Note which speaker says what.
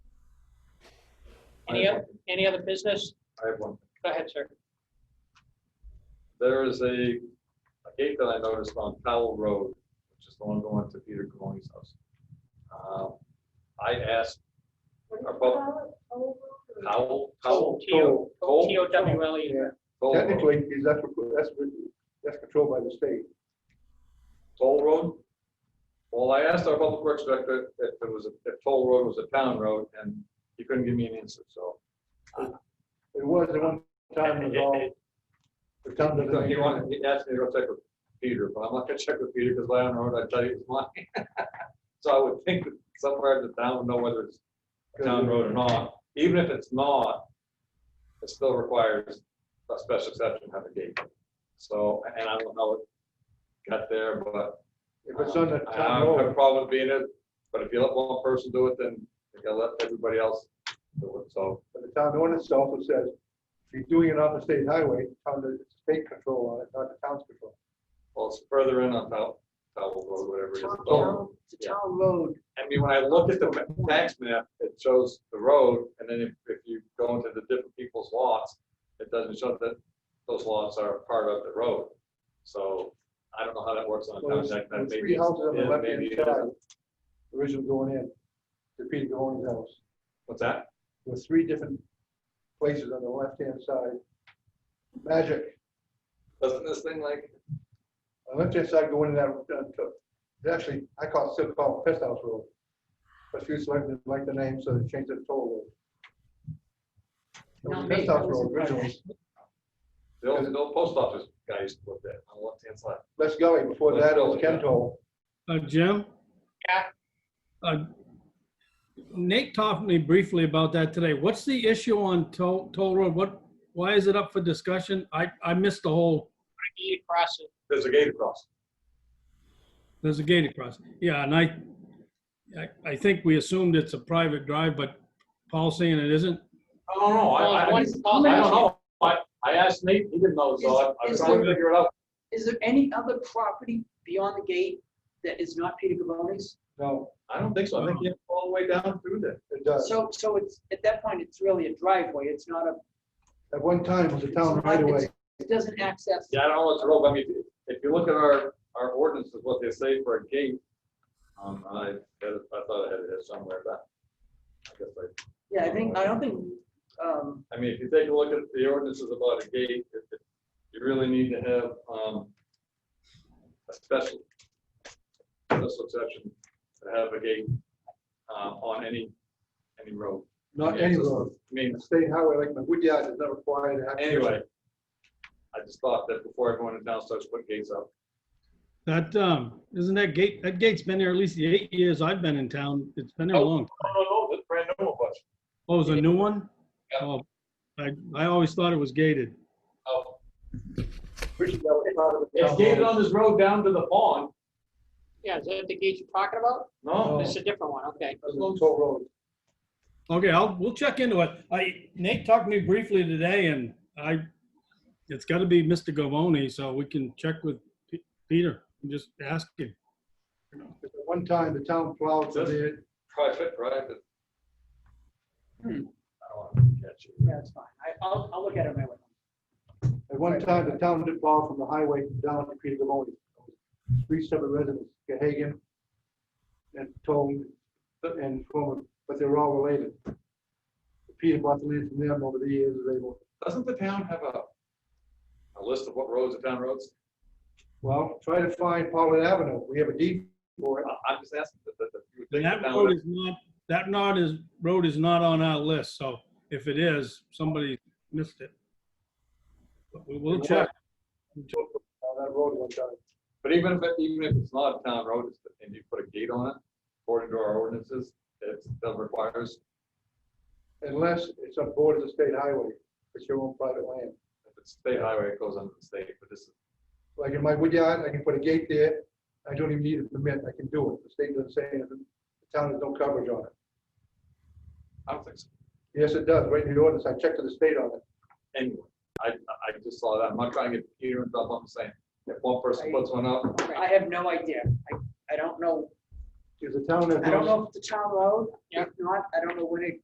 Speaker 1: Any other, any other business?
Speaker 2: I have one.
Speaker 1: Go ahead, sir.
Speaker 2: There is a, a gate that I noticed on Powell Road, which is the one going to Peter Coloni's house. Um, I asked Our pub- Powell, Powell.
Speaker 1: T O-
Speaker 2: Cole?
Speaker 1: T O W L E.
Speaker 2: Cole Road.
Speaker 3: Technically, because that's, what- that's, what- that's controlled by the state.
Speaker 2: Toll Road? Well, I asked our public works director if it was, a- if Toll Road was a town road, and he couldn't give me an answer, so.
Speaker 3: It was at one time, it was all, the town
Speaker 2: He
Speaker 3: doesn't.
Speaker 2: he wanted, he asked me to go check with Peter, but I'm not gonna check with Peter, because Land Road, I tell you, it's mine. So I would think that somewhere in the town would know whether it's a town road or not, even if it's not, it still requires a special exception, to have a gate. So, and I don't know how it got there, but
Speaker 3: If it's on the
Speaker 2: I
Speaker 3: town
Speaker 2: don't have a
Speaker 3: road,
Speaker 2: problem being it, but if you let one person do it, then you gotta let everybody else do it, so.
Speaker 3: but the town ordinance also says, if you're doing it on the state highway, town, it's state control on it, not the town's control.
Speaker 2: Well, it's further in on Powell, Powell Road, whatever it is.
Speaker 4: Town-
Speaker 2: So,
Speaker 4: town- It's a town road.
Speaker 2: I mean, when I look at the ma- tax map, it shows the road, and then if, if you go into the different people's lots, it doesn't show that those lots are part of the road. So I don't know how that works on a
Speaker 3: Well,
Speaker 2: town
Speaker 3: there's
Speaker 2: tax map.
Speaker 3: there's
Speaker 2: Maybe
Speaker 3: three
Speaker 2: it's-
Speaker 3: houses on the
Speaker 2: yeah,
Speaker 3: left
Speaker 2: maybe
Speaker 3: hand
Speaker 2: it
Speaker 3: side,
Speaker 2: is.
Speaker 3: original going in, to Pete Goins' house.
Speaker 2: What's that?
Speaker 3: with three different places on the left-hand side. Magic,
Speaker 2: Doesn't this thing like,
Speaker 3: on the left-hand side going in that, uh, to- it's actually, I call it, still called Pest House Road. But few selectmen like the name, so they changed it to Toll Road. It was
Speaker 4: Not me,
Speaker 3: Pest House
Speaker 4: that was
Speaker 3: Road
Speaker 4: a brother.
Speaker 3: originally,
Speaker 2: the old, the old post office guy used to put that on the left-hand side.
Speaker 3: Les Gully, before
Speaker 2: Les
Speaker 3: that it was
Speaker 2: Gully, yeah.
Speaker 3: Kentall.
Speaker 5: Uh, Jim?
Speaker 1: Yeah.
Speaker 5: Uh, Nate talked to me briefly about that today. What's the issue on Toll, Toll Road? What, why is it up for discussion? I, I missed the whole,
Speaker 1: E across it.
Speaker 2: There's a gate across.
Speaker 5: there's a gate across. Yeah, and I, I, I think we assumed it's a private drive, but Paul's saying it isn't.
Speaker 2: I don't know,
Speaker 1: Well,
Speaker 2: I, I, I
Speaker 1: one-
Speaker 2: don't know, I, I asked Nate, he didn't know, so I- I'm
Speaker 4: Is- is
Speaker 2: trying to
Speaker 4: there-
Speaker 2: figure it out.
Speaker 4: Is there any other property beyond the gate that is not Peter Gavoni's?
Speaker 3: No,
Speaker 2: I don't think so, I think he had to go all the way down through there.
Speaker 3: it does.
Speaker 4: So, so it's, at that point, it's really a driveway. It's not a,
Speaker 3: At one time, it was a town
Speaker 4: It's not-
Speaker 3: right away.
Speaker 4: it doesn't access.
Speaker 2: Yeah, I don't know what's wrong, I mean, if you look at our, our ordinances, what they say for a gate, um, I, had it- I thought I had it here somewhere, but I guess I,
Speaker 4: Yeah, I think, I don't think, um,
Speaker 2: I mean, if you take a look at the ordinances about a gate, it- it- you really need to have, um, a special, special exception to have a gate, um, on any, any road.
Speaker 3: Not
Speaker 2: Yeah,
Speaker 3: any
Speaker 2: it's just-
Speaker 3: road.
Speaker 2: I mean,
Speaker 3: The state highway, like my wood yard, is not required to have.
Speaker 2: anyway, I just thought that before everyone in town starts putting gates up,
Speaker 5: That, um, isn't that gate, that gate's been there at least the eight years I've been in town. It's been there a long.
Speaker 2: oh, no, no, that's brand new, but,
Speaker 5: Oh, it's a new one?
Speaker 2: Yeah.
Speaker 5: Oh, I, I always thought it was gated.
Speaker 2: oh.
Speaker 3: Pretty sure that was part of the
Speaker 2: It's
Speaker 3: town
Speaker 2: gated
Speaker 3: road.
Speaker 2: on this road down to the pond,
Speaker 1: Yeah, is that the gate you're talking about?
Speaker 4: Oh.
Speaker 2: no,
Speaker 1: This is a different one, okay.
Speaker 3: It was Toll Road.
Speaker 5: Okay, I'll, we'll check into it. I, Nate talked to me briefly today and I, it's gotta be Mr. Gavoni, so we can check with P- Peter and just ask him.
Speaker 3: At one time, the town plowed through there,
Speaker 2: private, private. I
Speaker 4: Hmm.
Speaker 2: don't want to catch you.
Speaker 4: yeah, it's fine. I, I'll, I'll look at it my way.
Speaker 3: At one time, the town did borrow from the highway down to Peter Gavoni. Three separate residents, Gahagan and Tone and Foreman, but they were all related. Peter bought the land from them over the years, they were,
Speaker 2: Doesn't the town have a, a list of what roads are town roads?
Speaker 3: well, try to find Paulin Avenue. We have a deed for it.
Speaker 2: I- I'm just asking, that, that, that you would
Speaker 5: And
Speaker 2: think the
Speaker 5: that
Speaker 2: town
Speaker 5: road
Speaker 2: would-
Speaker 5: is not, that not is, road is not on our list, so if it is, somebody missed it. But we will check.
Speaker 3: On that road one time.
Speaker 2: but even if, it- even if it's not a town road, it's- and you put a gate on it, according to our ordinances, it still requires,
Speaker 3: Unless it's on board of the state highway, it's your own private land.
Speaker 2: if it's state highway, it goes under the state, but this is
Speaker 3: Like in my wood yard, I can put a gate there. I don't even need a permit. I can do it. The state doesn't say anything. The town has no coverage on it.
Speaker 2: I don't think so.
Speaker 3: Yes, it does, right in the ordinance, I checked to the state on it.
Speaker 2: Anyway, I, I just saw that. I'm not trying to get Peter and Bob, I'm saying, if one person puts one up,
Speaker 4: I have no idea. I, I don't know.
Speaker 3: Is the town has
Speaker 4: I don't
Speaker 3: no,
Speaker 4: know if it's a town road.
Speaker 1: Yeah.
Speaker 4: If not, I don't know when it